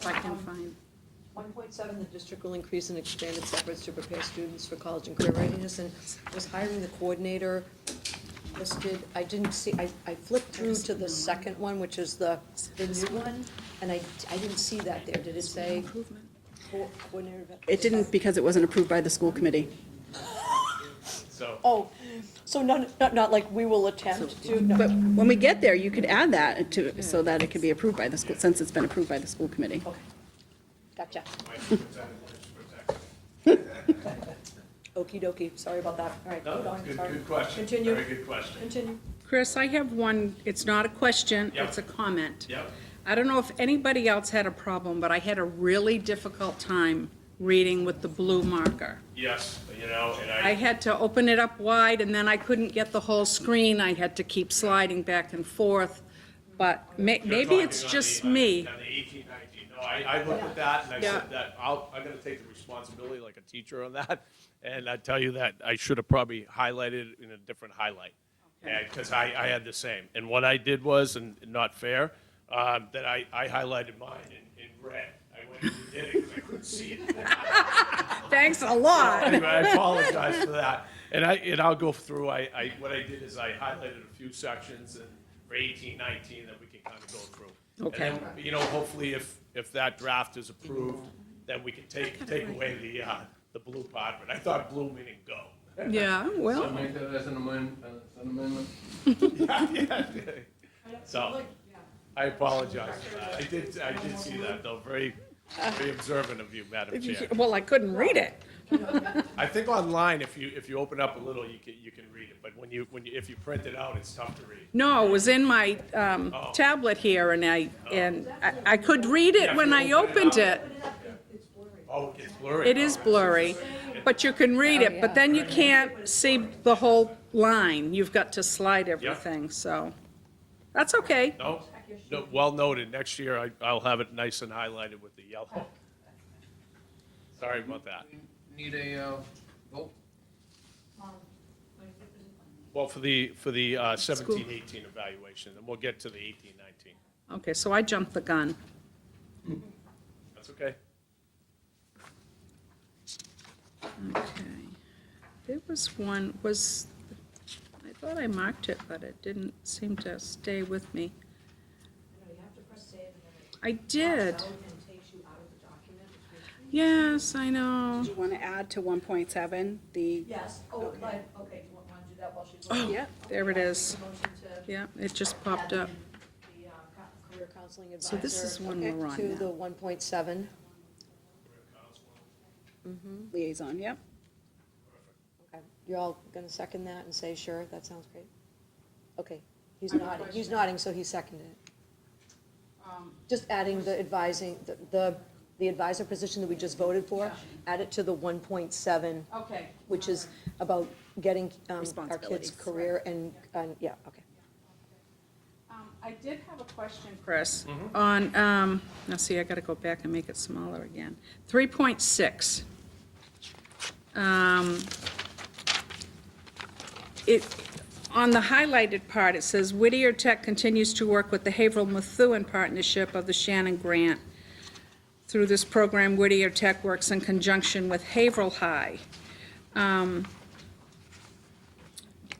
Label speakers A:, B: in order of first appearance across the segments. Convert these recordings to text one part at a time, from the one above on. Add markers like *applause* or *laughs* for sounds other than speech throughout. A: if I can find.
B: One point seven, the district will increase and expand its efforts to prepare students for college and career readiness, and was hiring the coordinator listed, I didn't see, I, I flipped through to the second one, which is the, the new one, and I, I didn't see that there, did it say
A: Improvement.
B: co- coordinator? of-
C: It didn't because it wasn't approved by the school committee.
D: So,
B: Oh, so not, not, not like we will attempt to, no,
C: But when we get there, you could add that to, so that it could be approved by the school, since it's been approved by the school committee.
B: okay, gotcha, okey dokey, sorry about that, all right,
D: no,
B: hold on,
D: good,
B: sorry.
D: good question.
B: Continue,
D: Very good question.
B: continue.
A: Chris, I have one, it's not a question,
D: Yep.
A: it's a comment.
D: Yep.
A: I don't know if anybody else had a problem, but I had a really difficult time reading with the blue marker.
D: Yes, you know, and
A: I
D: I,
A: had to open it up wide, and then I couldn't get the whole screen. I had to keep sliding back and forth, but may-
D: you're
A: maybe
D: talking
A: it's
D: on
A: just
D: the- on-
A: me.
D: On the eighteen, nineteen. No, I, I looked at that and I
A: Yeah.
D: said that, I'll, I'm gonna take the responsibility like a teacher on that. And I tell you that I should have probably highlighted it in a different highlight. And, cause I, I had the same. And what I did was, and not fair, um, that I, I highlighted mine in, in red. I went and did it 'cause I couldn't see it.
A: Thanks a
D: *laughs*
A: lot.
D: Anyway, I apologize for that. And I, and I'll go through, I, I, what I did is I highlighted a few sections and for eighteen, nineteen, that we can kind of go through.
A: Okay.
D: And then, You know, hopefully if, if that draft is approved, then we can take, take away the, uh, the blue part, but I thought blue meaning go.
A: Yeah, *laughs*
E: So
A: well,
E: make that as an amendment, as an amendment.
D: So, I apologize for that. I did, I did see that though, very, very observant of you, Madam Chair.
A: well, I couldn't read it.
D: I think online, if you, if you open up a little, you can, you can read it, but when you, when you, if you print it out, it's tough to read.
A: No, it was in my um,
D: Oh.
A: tablet here, and I, and I- I could read it when I opened it.
D: Oh, it gets blurry.
A: It is blurry, but you can read it, but then you can't see the whole line. You've got to slide everything, so that's okay.
D: No, no, well noted. Next year, I, I'll have it nice and highlighted with the yellow. Sorry about that.
E: Need a, uh, vote?
D: Well, for the, for the uh, seventeen, eighteen evaluation, and we'll get to the eighteen, nineteen.
A: Okay, so I jumped the gun.
D: That's okay.
A: Okay. There was one, was, I thought I marked it, but it didn't seem to stay with me. I did. Yes, I know.
C: Do you want to add to 1.7, the,
F: Yes, oh, but, okay, do you want to do that while she's
A: Oh,
F: looking?
C: yeah,
A: There it is.
F: Motion to
A: Yeah, it just
F: add
A: popped
F: the,
A: up.
F: the uh, co- career counseling advisor.
A: So this is one we're on
B: To the
A: now.
B: one point seven,
C: liaison, yep.
B: okay, you're all gonna second that and say, sure, that sounds great? Okay, he's nodding, he's nodding, so he seconded it. Just adding the advising, the- the, the advisor position that we just voted for, add it to the one point seven,
F: Okay.
B: which is about getting um, our kids'
C: Responsibilities.
B: career and, and, yeah, okay.
A: Um, I did have a question, Chris,
D: Mm-hmm.
A: on, um, now see, I gotta go back and make it smaller again. Three point six. It, on the highlighted part, it says Whittier Tech continues to work with the Haverhill Methuen Partnership of the Shannon Grant. Through this program, Whittier Tech works in conjunction with Haverhill High. Um,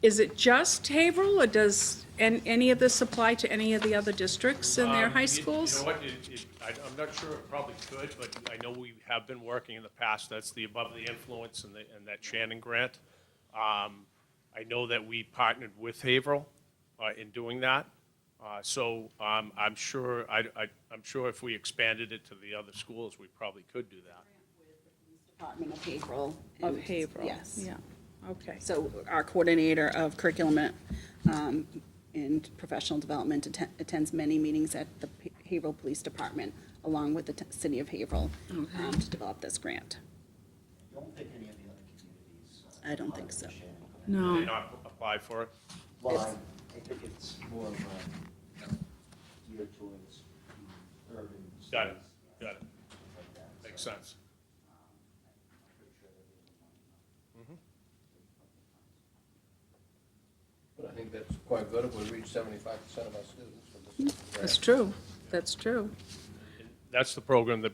A: Is it just Haverhill, or does an- any of this apply to any of the other districts in their
D: Um,
A: high
D: you- You
A: schools?
D: know what, it- it- I, am not sure it probably could, but I know we have been working in the past, that's the Above the Influence and the, and that Shannon grant. Um, I know that we partnered with Haverhill, uh, in doing that. Uh, so, um, I'm sure, I, I, I'm sure if we expanded it to the other schools, we probably could do that.
C: Department of Haverhill.
A: Of
C: and-
A: Haverhill?
C: Yes.
A: Yeah, okay.
C: So our coordinator of curriculum um, and professional development atten- attends many meetings at the P- Haverhill Police Department, along with the t- city of Haverhill, um, to develop this grant.
G: Don't think any of the other communities. uh,
C: I don't think so.
A: No.
D: Did not apply for it.
G: Well, I, I think it's more of a geared towards the urban.
D: Got it,
G: cities,
D: got it,
G: stuff like that.
D: makes
G: So,
D: sense.
G: um, I'm pretty sure that they don't
D: Mm-hmm.
G: want, um,
E: But I think that's quite good if we reach seventy-five percent of our students with this.
A: That's true, that's true.
D: And that's the program that